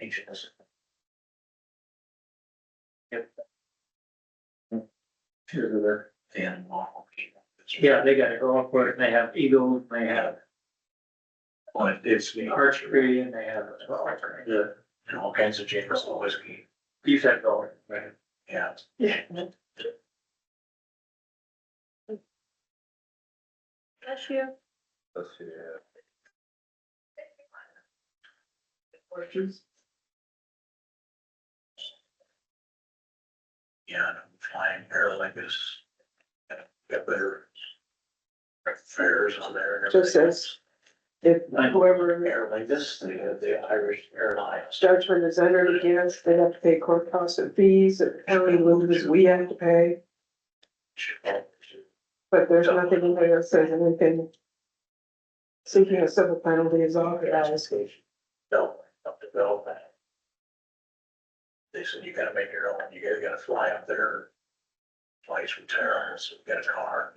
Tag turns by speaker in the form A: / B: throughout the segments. A: anxious.
B: Sure, they're.
A: And.
B: Yeah, they gotta go up for it, and they have eagles, and they have
A: But it's the art
B: archery, and they have the
A: and all kinds of Jameson whiskey,
B: defect going.
A: yeah.
B: Yeah.
C: Bless you.
D: Let's see, uh,
B: Questions?
A: Yeah, and I'm flying Paralympics. Got better. Fairs on there. and
E: Just
A: everything.
E: says- If whoever
A: Airlingus, the, the Irish Airlines.
E: starts with is entered against, they have to pay court costs and fees, and county loses, we have to pay. But there's nothing in there that says anything. Seeking a civil penalty is authorized.
A: No, up to Belfast. They said, you gotta make your own, you gotta, gotta fly up there. Flights from terrorists, you got a car.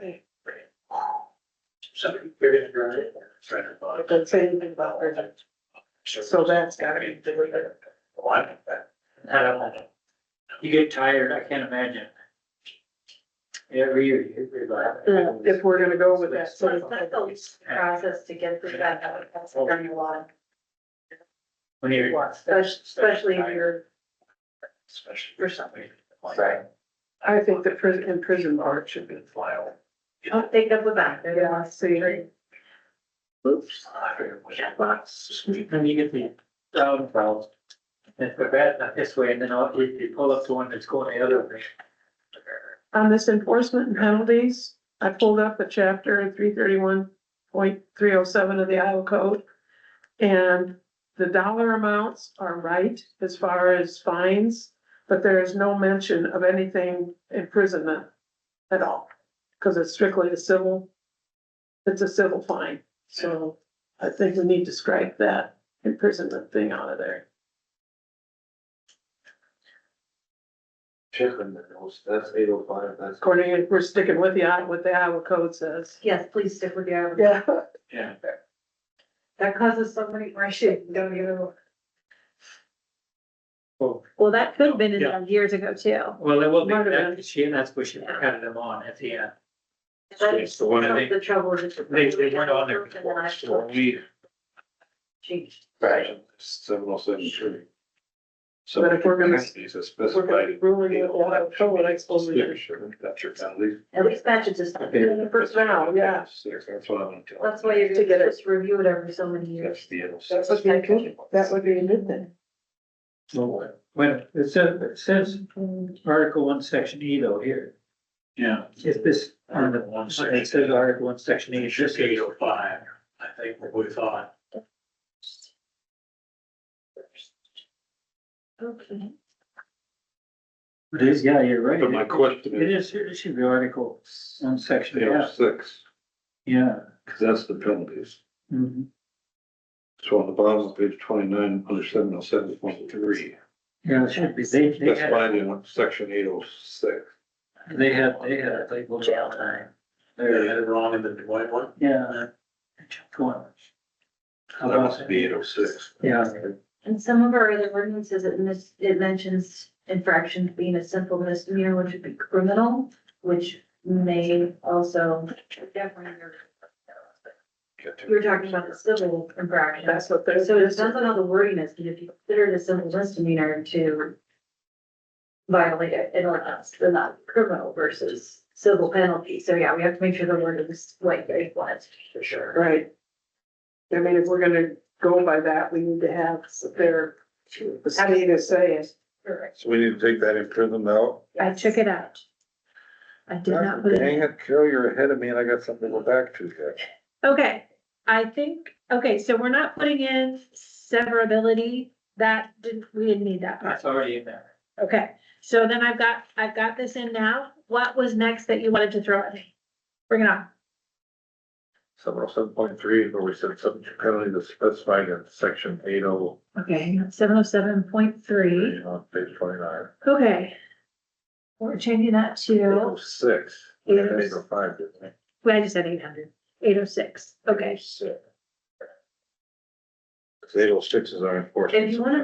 A: Somebody buried a drone. Friend of mine.
E: It doesn't say anything about urgent. So that's gotta be delivered.
A: Well, I think that-
B: I don't know. You get tired, I can't imagine. Every year you hear about
E: Yeah,
B: it.
E: If we're gonna go with that
C: So
E: civil
C: it's not
E: penalty.
C: the process to get through that, that would cost them a lot,
B: When you're.
C: especially, especially if you're,
A: Especially.
C: for something.
A: Like,
B: Right.
E: I think the prison, imprisonment bar should be.
A: Fly over.
C: Don't think of the back, they're gonna
E: see.
B: Oops.
A: I figured, well, yeah, well, it's-
B: Then you get the dog problems. If we're bad enough this way, and then I'll- you, you pull up the one that's going the other way.
E: On this enforcement and penalties, I pulled up a chapter three thirty-one point three oh seven of the Iowa code. And the dollar amounts are right as far as fines, but there is no mention of anything imprisonment at all. Cause it's strictly a civil, it's a civil fine, so I think we need to strike that imprisonment thing out of there.
D: chicken, that's- that's eight oh five, that's.
E: According, if we're sticking with the, Iowa- what the Iowa code says.
C: Yes, please stick with your,
E: Yeah.
B: Yeah.
C: that causes so many more shit, don't you?
B: Well,
C: Well, that could have been
B: in
C: there years ago too.
B: well, it will be
E: Might have
B: back
E: been.
B: this year, and that's what she added them on at the end.
C: That's
B: the one
C: the trouble is.
B: They, they weren't on there before, so we.
C: Changed.
B: Right.
D: Seven oh seven three. So.
E: But if we're gonna-
D: These are
E: We're gonna be
D: specified.
E: ruling it out, so what I suppose we
D: Yeah,
E: do.
D: sure, That's your penalty.
C: At least match it just.
E: Yeah, for now, yeah.
D: Six, that's what I'm gonna tell.
C: That's why you're
E: To get it.
C: just review it every so many years.
D: That's the. end.
E: That would be a good, that would be a good thing.
B: Well, When it says, it says Article one, section E though here,
A: Yeah.
B: is this on the one, it says Article one, section E,
A: It
B: is
A: should
B: this
A: be eight
B: is
A: oh five, I think what we thought,
C: Okay.
B: It is, yeah, you're right.
D: But my question
B: It is,
D: is,
B: it should be Article one, section
D: eight oh
B: F,
D: six,
B: yeah.
D: cause that's the penalties.
B: Mhm.
D: So on the bottom of page twenty-nine, under seven oh seven point three,
B: Yeah, it should be, they, they
D: specified
B: had,
D: in section eight oh six.
B: they had, they had it labeled all the time.
A: they had it wrong in the Dwight one,
B: Yeah. Go on.
D: That must be eight oh six.
B: Uh, Yeah.
C: And some of our other ordinances, it mis, it mentions infractions being a simple misdemeanor, which would be criminal, which may also definitely. You're talking about the civil infraction.
E: That's what they're.
C: So it depends on how the wording is, but if you consider it a simple misdemeanor to violate it, it'll last, then not criminal versus civil penalty. So yeah, we have to make sure the word is like they want it for sure.
E: Right. I mean, if we're gonna go by that, we need to have their, the state is saying.
C: Correct.
D: So we need to take that imprisonment out.
C: I took it out. I did not put it.
D: Dang it, Carol, you're ahead of me and I got something to go back to here.
F: Okay, I think, okay, so we're not putting in severability, that didn't, we didn't need that part,
B: That's already in there.
F: okay. So then I've got, I've got this in now, what was next that you wanted to throw at me? Bring it on,
D: Seven oh seven point three, where we said subject to penalty that's specified in section eight oh,
F: okay, seven oh seven point three,
D: on page twenty-nine, oh
F: okay. We're changing that to,
D: six.
F: Eight oh s-
D: five, didn't we?
F: well, I just said eight hundred, eight oh six, okay.
D: Eight oh six is our enforcement.
C: If you wanna